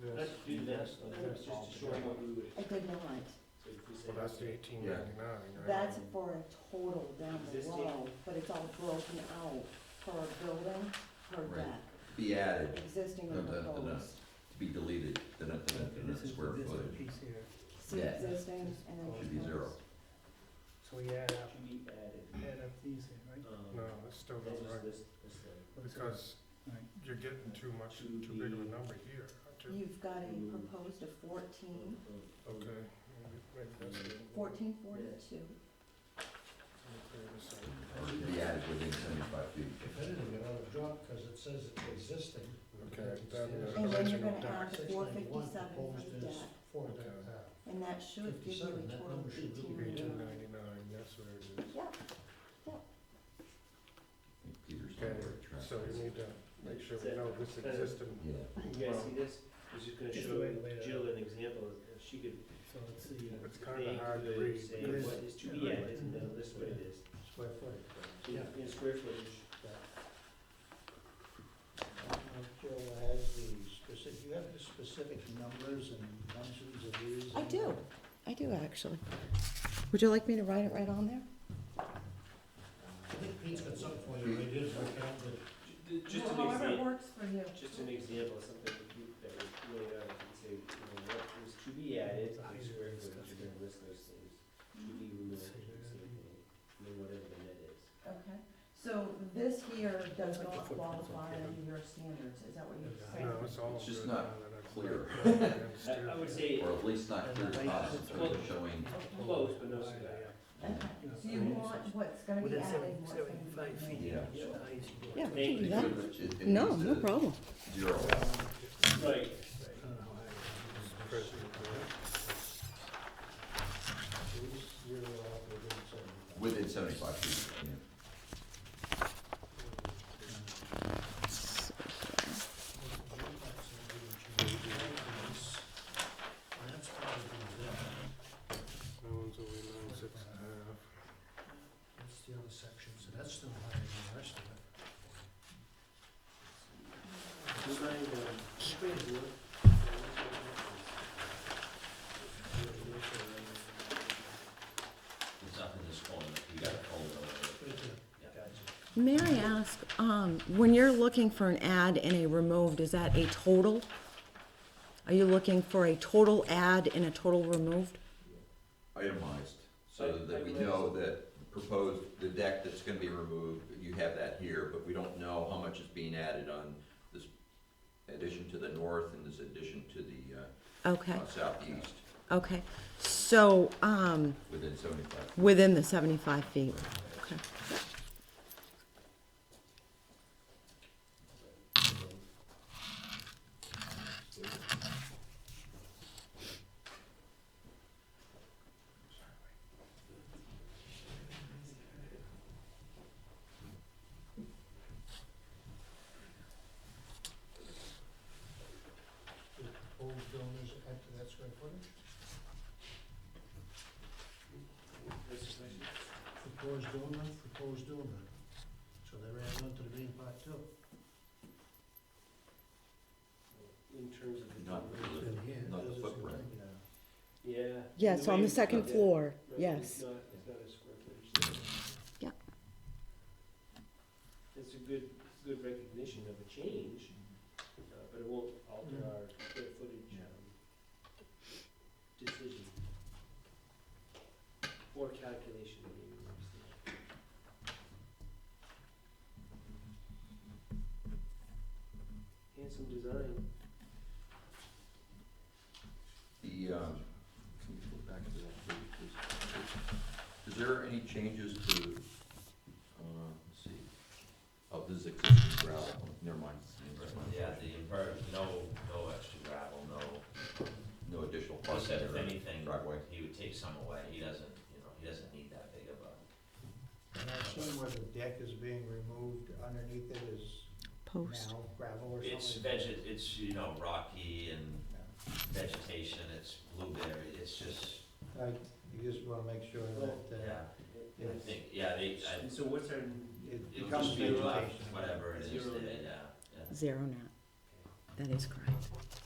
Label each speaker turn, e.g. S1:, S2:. S1: this.
S2: Let's do this, that's just to show you what we would.
S3: I did not.
S2: so if you say-
S1: Well, that's the eighteen ninety-nine, right?
S3: That's for a total down
S2: Existing.
S3: below, but it's all broken out per building, per
S4: Right.
S3: deck,
S4: Be added,
S3: existing
S4: No,
S3: and
S4: no, no, no.
S3: proposed.
S4: to be deleted, the, the, the,
S5: This is
S4: the square
S5: this
S4: footage
S5: piece here,
S3: See
S4: Yeah.
S3: existing and then
S4: should be zero.
S3: proposed.
S5: so we add up,
S2: To be added.
S5: add up these here, right?
S2: Um,
S1: No, it's still
S2: That
S1: not
S2: was
S1: right,
S2: this, this thing.
S5: What is it?
S1: because
S5: Right.
S1: you're getting too much, too big of a number here, too.
S3: You've got a proposed of fourteen,
S2: Um,
S1: Okay, maybe, maybe that's it.
S3: fourteen forty-two.
S1: Let me clear this out.
S2: um,
S4: to be added within seventy-five feet.
S6: That didn't get out of drop, cause it says it's existing.
S1: Okay, then
S3: And
S1: the
S3: then you're
S1: original
S3: gonna
S1: deck,
S3: add the
S6: Six
S3: four
S6: ninety-one
S3: fifty-seven for
S6: proposed
S3: the
S6: is
S3: deck,
S6: four deck
S1: Okay.
S6: high.
S3: and that should give you
S6: 57,
S3: a
S6: that
S3: total
S6: number
S3: of
S6: should
S3: eighteen
S6: really be
S1: eighteen
S3: ninety-nine.
S1: ninety-nine, that's where it is.
S3: Yeah,
S4: Peter's on
S1: Okay,
S4: the right track.
S1: so we need to make sure we know this existed.
S4: Yeah,
S2: You guys see this? It's just gonna
S5: Just the way to lay
S2: show
S5: it
S2: Jill
S5: out.
S2: an example, of- if she could.
S5: So let's see, uh,
S1: It's kinda hard to read,
S2: Say
S5: because-
S2: what is to be added, and then this way it is.
S6: Square footage.
S2: So you in square footage,
S6: Uh, Jill has the specific, you have the specific numbers and dimensions of these?
S3: I do, I do actually. Would you like me to write it right on there?
S6: I think Pete's got something for you, it is, I can't, but
S2: Ju- ju- just an
S3: However
S2: example.
S3: it works for you.
S2: Just an example of something that you, that was laid out, you can say, you know, what was to be added, in square footage, you're gonna list those things. To be removed, you can say, you know, whatever the net is.
S3: Okay, so this here
S5: Like
S3: does
S5: the
S3: not
S5: footprints
S3: qualify
S5: on
S3: under your standards, is that what you're saying?
S1: No, it's all
S4: It's just
S1: good now
S4: not
S1: that I've
S4: clear.
S1: read it.
S2: I, I would say
S4: or at least not clear to us in terms of showing,
S2: close, but no cigar.
S3: Okay,
S5: you know,
S3: so you want what's gonna be
S5: Within
S3: added,
S5: seven-
S3: what's gonna be
S5: seventy-five feet.
S3: removed.
S4: yeah.
S5: so the highest you go.
S3: Yeah,
S5: I
S3: we can do
S4: It
S3: that.
S4: could- it- it
S7: No,
S4: needs
S7: no
S4: to
S7: problem.
S4: Zero out.
S2: Right,
S5: don't know how high it is.
S6: these, you're allowed to do something.
S4: within seventy-five feet, yeah.
S6: That's probably them.
S1: No one's over nine six and a half.
S6: That's the other section, so that's still higher than the rest of it.
S2: design, um,
S4: It's not in this folder, you gotta fold it over.
S6: Right there.
S7: May I ask, um, when you're looking for an add and a removed, is that a total? Are you looking for a total add and a total removed?
S4: itemized, so that we know that proposed, the deck that's gonna be removed, you have that here, but we don't know how much is being added on this addition to the north and this addition to the
S7: Okay,
S4: uh, uh, southeast
S7: okay. So, um,
S4: within seventy-five.
S7: within the seventy-five feet.
S6: The proposed buildings add to that square footage? Proposed donor, proposed donor. So they're adding on to the main part too.
S2: in terms of. the-
S4: Not really.
S6: It's in here,
S4: Not the
S6: does it seem
S4: footprint.
S6: like, uh,
S2: Yeah.
S7: Yes,
S2: The way
S7: on the
S2: it's
S7: second
S2: built, yeah.
S7: floor,
S2: Right, It's
S7: yes.
S2: not, it's not a square footage.
S7: Yeah.
S2: It's a good, good recognition of a change, uh, but it won't alter
S6: Mm.
S2: our square footage,
S6: Yeah.
S2: um, decision. Or calculation, I mean, obviously. Handsome design,
S4: The, um, can we go back to that page, please? Is there any changes to, uh, let's see, oh, this is existing gravel, never mind.
S8: Yeah, the invert, no, no extra gravel, no,
S4: No additional
S8: plus
S4: parking
S8: if
S4: or
S8: anything,
S4: driveway.
S8: he would take some away, he doesn't, you know, he doesn't need that big of a.
S6: And I've seen where the deck is being removed, underneath it is
S7: Post.
S6: now gravel or something.
S8: It's veget, it's, you know, rocky and vegetation, it's blueberry, it's just,
S6: I, you just wanna make sure that, uh,
S8: yeah,
S2: Oh,
S6: Yeah.
S8: I think, yeah, they, I,
S2: and so what's our,
S6: it
S8: it'll
S6: becomes
S8: just be
S6: vegetation.
S8: like, whatever it is,
S2: Zero
S8: there,
S2: net.
S8: yeah, yeah.
S7: Zero net. That is correct.